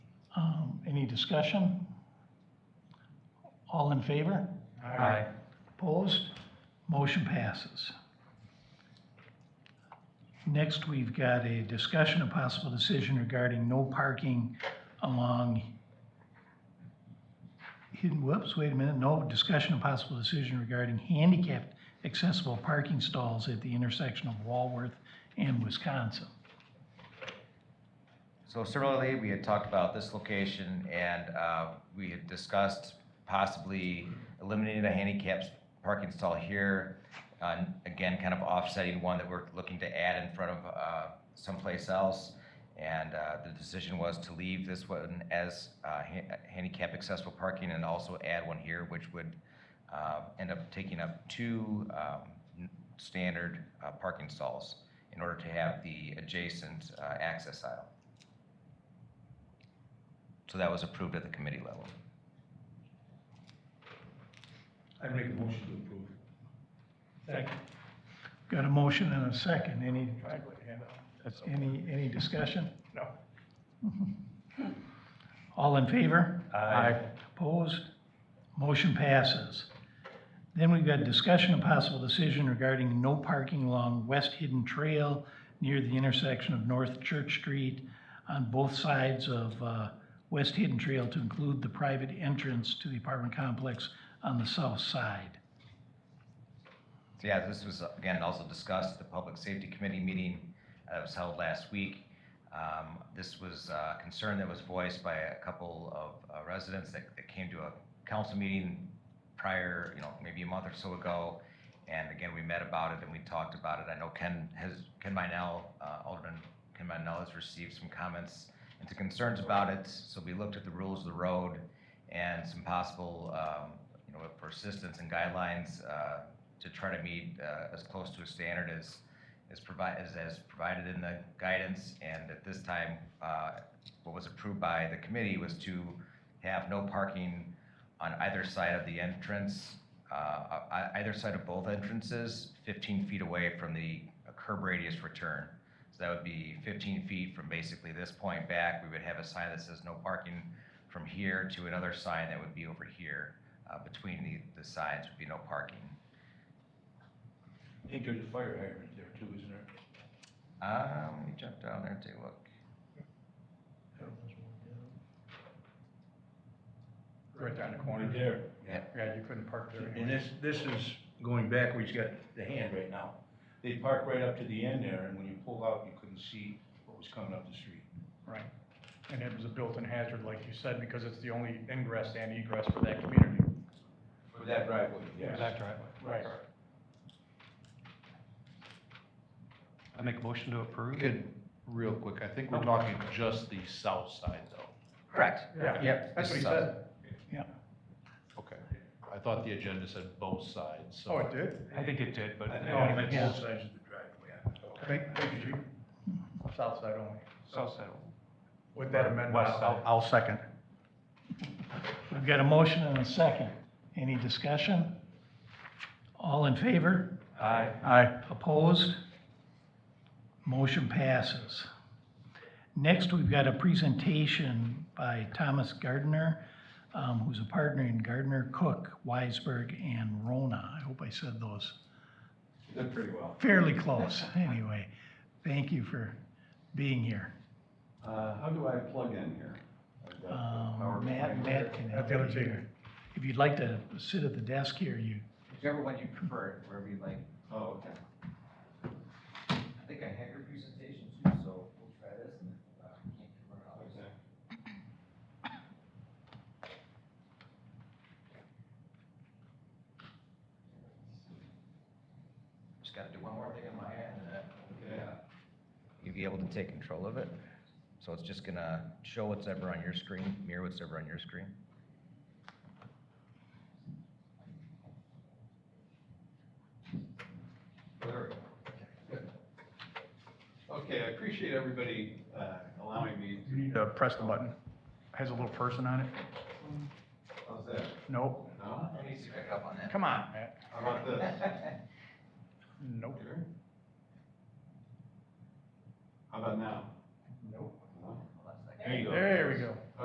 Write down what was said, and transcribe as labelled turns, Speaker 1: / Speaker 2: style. Speaker 1: Um, Any discussion? All in favor?
Speaker 2: Aye.
Speaker 1: Opposed? Motion passes. Next, we've got a discussion of possible decision regarding no parking along hidden, whoops, wait a minute, no discussion of possible decision regarding handicapped accessible parking stalls at the intersection of Walworth and Wisconsin.
Speaker 2: So similarly, we had talked about this location and uh, we had discussed possibly eliminating a handicap parking stall here. Uh, Again, kind of offsetting one that we're looking to add in front of uh, someplace else. And uh, the decision was to leave this one as uh, ha- handicap accessible parking and also add one here, which would uh, end up taking up two um, n- standard uh, parking stalls in order to have the adjacent uh, access aisle. So that was approved at the committee level.
Speaker 3: I'd make a motion to approve. Second.
Speaker 1: Got a motion and a second. Any,
Speaker 3: I put a hand up.
Speaker 1: any, any discussion?
Speaker 3: No.
Speaker 1: All in favor?
Speaker 3: Aye.
Speaker 1: Opposed? Motion passes. Then we've got discussion of possible decision regarding no parking along West Hidden Trail near the intersection of North Church Street on both sides of uh, West Hidden Trail to include the private entrance to the apartment complex on the south side.
Speaker 2: So yeah, this was, again, also discussed at the Public Safety Committee meeting that was held last week. Um, This was a concern that was voiced by a couple of uh, residents that that came to a council meeting prior, you know, maybe a month or so ago. And again, we met about it and we talked about it. I know Ken has, Ken Minell, uh, Alderman Ken Minell has received some comments and some concerns about it. So we looked at the rules of the road and some possible, um, you know, persistence and guidelines uh, to try to meet uh, as close to a standard as, as provide, as, as provided in the guidance. And at this time, uh, what was approved by the committee was to have no parking on either side of the entrance, uh, uh, either side of both entrances, 15 feet away from the curb radius return. So that would be 15 feet from basically this point back. We would have a sign that says no parking from here to another sign that would be over here. Uh, Between the, the signs would be no parking.
Speaker 3: I think there's a fire hydrant there too, isn't there?
Speaker 2: Uh, let me jump down there and take a look.
Speaker 3: Right down the corner. There.
Speaker 2: Yeah.
Speaker 4: Yeah, you couldn't park there
Speaker 3: And
Speaker 4: anyway.
Speaker 3: this, this is going back where he's got the hand right now. They parked right up to the end there, and when you pulled out, you couldn't see what was coming up the street.
Speaker 4: Right. And it was a built-in hazard, like you said, because it's the only ingress and egress for that community.
Speaker 3: For that driveway, yes.
Speaker 4: driveway. Right.
Speaker 5: I make a motion to approve.
Speaker 6: Good, real quick, I think we're talking just the south side though.
Speaker 2: Correct.
Speaker 4: Yeah.
Speaker 2: Yep.
Speaker 4: That's what he
Speaker 2: this is us.
Speaker 4: said.
Speaker 6: Okay. I thought the agenda said both sides, so.
Speaker 4: Oh, it did?
Speaker 5: I think it did, but
Speaker 3: I think
Speaker 4: No,
Speaker 3: I meant
Speaker 4: yeah.
Speaker 3: both sides of the driveway.
Speaker 4: Thank, thank you, Chief. South side only.
Speaker 5: south side.
Speaker 4: With that amendment,
Speaker 5: West
Speaker 4: I'll,
Speaker 5: side.
Speaker 4: I'll second.
Speaker 1: We've got a motion and a second. Any discussion? All in favor?
Speaker 5: Aye.
Speaker 1: Aye. Opposed? Motion passes. Next, we've got a presentation by Thomas Gardner, um, who's a partner in Gardner, Cook, Weisberg, and Rona. I hope I said those
Speaker 3: Did pretty well.
Speaker 1: fairly close, anyway. Thank you for being here.
Speaker 7: Uh, how do I plug in here? I've got the
Speaker 1: Um,
Speaker 7: PowerPoint
Speaker 1: Matt,
Speaker 7: here.
Speaker 1: Matt can
Speaker 4: At
Speaker 1: help
Speaker 4: the
Speaker 1: you
Speaker 4: other table.
Speaker 1: here. If you'd like to sit at the desk here, you,
Speaker 2: Whichever one you prefer, wherever you like.
Speaker 7: Oh, okay.
Speaker 2: I think I have your presentation too, so we'll try this and if uh, we can't convert it, I'll just- Just gotta do one more thing on my end and then. You'd be able to take control of it. So it's just gonna show what's ever on your screen, mirror what's ever on your screen.
Speaker 7: There we go. Good. Okay, I appreciate everybody, uh, allowing me
Speaker 4: You need to press the button. Has a little person on it?
Speaker 7: to, how's that?
Speaker 4: Nope.
Speaker 7: No?
Speaker 2: I need to pick up on that.
Speaker 4: Come on, Matt.
Speaker 7: How about this?
Speaker 4: Nope.
Speaker 7: Here? How about now?
Speaker 4: Nope.
Speaker 7: No?
Speaker 2: Hold on a second.
Speaker 3: There you go.
Speaker 4: There we go.